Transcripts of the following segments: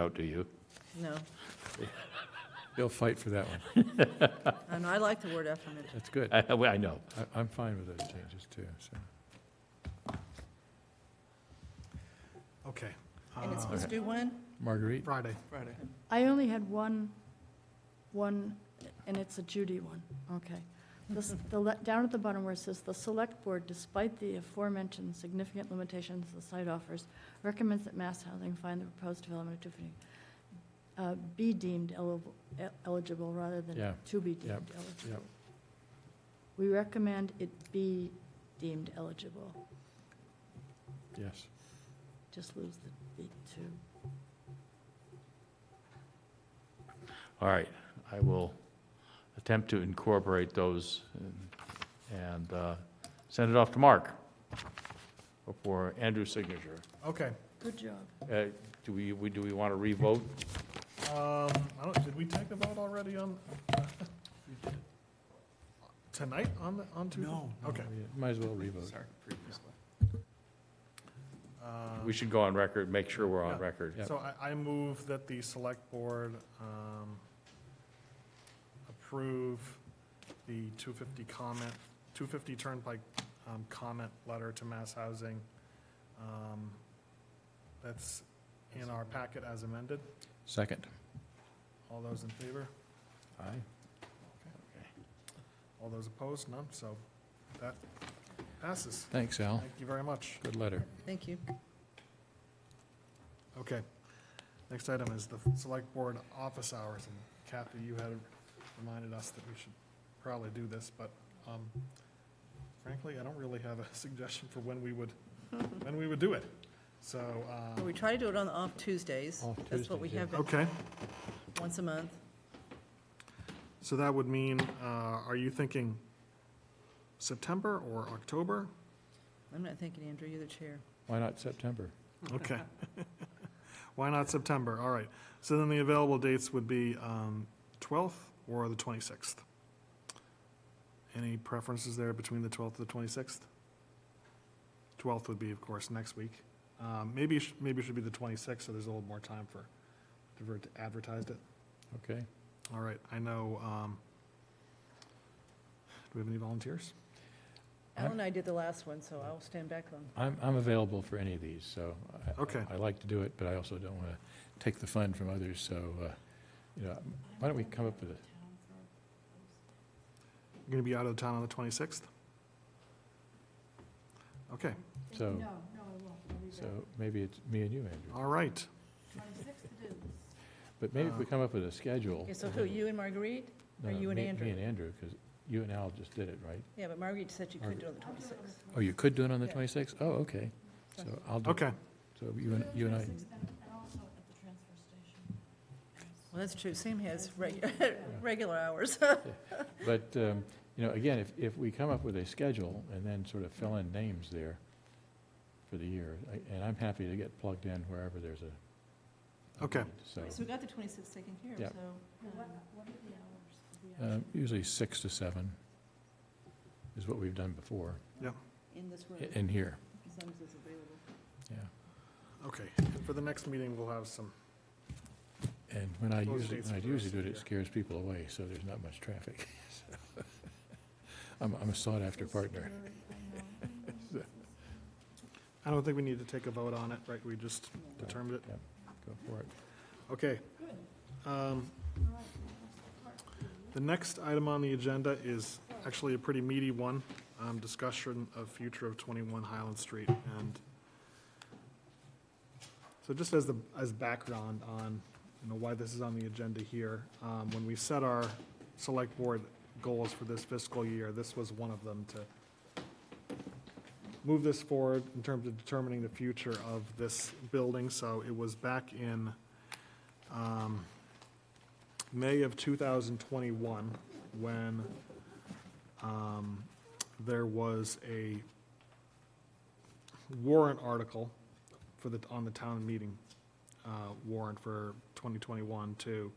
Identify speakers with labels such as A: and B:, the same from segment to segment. A: out, do you?
B: No,
C: They'll fight for that one.
B: I know, I like the word affirmative.
C: That's good.
A: I, I know.
C: I- I'm fine with those changes, too, so.
D: Okay.
B: And it's
D: Uh,
B: supposed to do when?
C: Marguerite,
D: Friday.
B: Friday.
E: I only had one, one, and it's a Judy one, okay. This- The, le- down at the bottom where it says, "The Select Board, despite the aforementioned significant limitations the site offers, recommends that Mass Housing find the proposed development of Tiffany uh, be deemed eligible- e-, eligible rather
C: Yeah,
E: than to be
C: yep,
E: deemed eligible."
C: yep.
E: We recommend it be deemed eligible,
C: yes.
E: just lose the be to.
A: All right, I will attempt to incorporate those and- and uh, send it off to Mark for Andrew's signature.
D: Okay.
E: Good job.
A: Uh, Do we, we- do we want to revote?
D: Um, I don't, did we take a vote already on? uh, Tonight on the, on Tuesday?
C: No.
D: Okay.
C: Might as well revote.
D: Uh,
A: We should go on record, make sure we're on
D: Yeah.
A: record.
C: Yep.
D: So I, I move that the select board, um, approve the two fifty comment, two fifty Turnpike, um, comment letter to Mass Housing. um, That's in our packet as amended.
C: Second.
D: All those in favor?
C: Aye.
D: All those opposed? None? So that passes.
C: Thanks, Al.
D: Thank you very much.
C: Good letter.
B: Thank you.
D: Okay. Next item is the Select Board office hours, and Kathy, you had reminded us that we should probably do this, but um, frankly, I don't really have a suggestion for when we would, when we would do it. So, uh,
B: Well, We try to do it on the off Tuesdays.
C: Oh. Off
B: That's what we
C: Tuesdays, yeah.
B: have, been-
D: okay,
B: once a month.
D: so that would mean, uh, are you thinking September or October?
B: I'm not thinking, Andrew, you're the chair.
C: Why not September?
D: Okay. Why not September? All right. So then the available dates would be um, 12th or the 26th. Any preferences there between the 12th and the 26th? 12th would be, of course, next week. Um, Maybe, it sh- maybe it should be the 26th, so there's a little more time for, to ver- to advertise it.
C: Okay.
D: All right, I know, um, do we have any volunteers?
B: Al and I did the last one, so I'll stand back on.
C: I'm, I'm available for any of these, so. I-
D: Okay.
C: I like to do it, but I also don't want to take the fun from others, so, uh, you know, why don't we come up with a,
D: You're going to be out of town on the 26th? Okay,
C: so,
E: No, no, I won't, I'll be
C: so maybe it's me and you, Andrew.
D: all right.
C: But maybe if we
D: Uh,
C: come up with a schedule.
B: Okay, so who, you and Marguerite?
C: No,
B: or
C: no,
B: you and
C: me-
B: Andrew?
C: Me and Andrew, because you and Al just did it, right?
B: Yeah, but Marguerite said you could do it on the twenty-sixth.
C: Oh, you could do it on the
B: Yeah.
C: 26th? Oh, okay. So I'll do it.
D: Okay,
C: So you and, you and I,
B: Well, that's true, Sam has regular, regular hours.
C: but, um, you know, again, if, if we come up with a schedule and then sort of fill in names there for the year, I- and I'm happy to get plugged in wherever there's a. a
D: Okay.
C: need, So,
B: we got the twenty-sixth taken care
C: Yeah.
B: so.
C: um, usually six to seven is what we've done before,
B: In this room,
C: i- in here,
B: as long as it's available.
C: yeah.
D: okay. For the next meeting, we'll have some
C: And when I
D: Those
C: usually,
D: dates
C: when I
D: for the rest
C: usually do
D: of
C: it,
D: the
C: it
D: year.
C: scares people away, so there's not much traffic. So, I'm, I'm a sought-after partner.
D: I don't think we need to take a vote on it, right? We just determined it.
C: Go for it.
D: Okay. Um, The next item on the agenda is actually a pretty meaty one, um, discussion of future of 21 Highland Street. And so just as the, as background on, you know, why this is on the agenda here, um, when we set our select board goals for this fiscal year, this was one of them to move this forward in terms of determining the future of this building. So it was back in um, May of 2021, when um, there was a warrant article for the, on the town meeting uh, warrant for 2021 to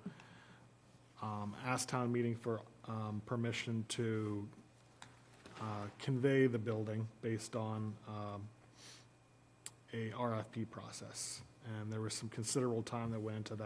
D: um, ask town meeting for um, permission to uh, convey the building based on um, a RFP process. And there was some considerable time that went into that.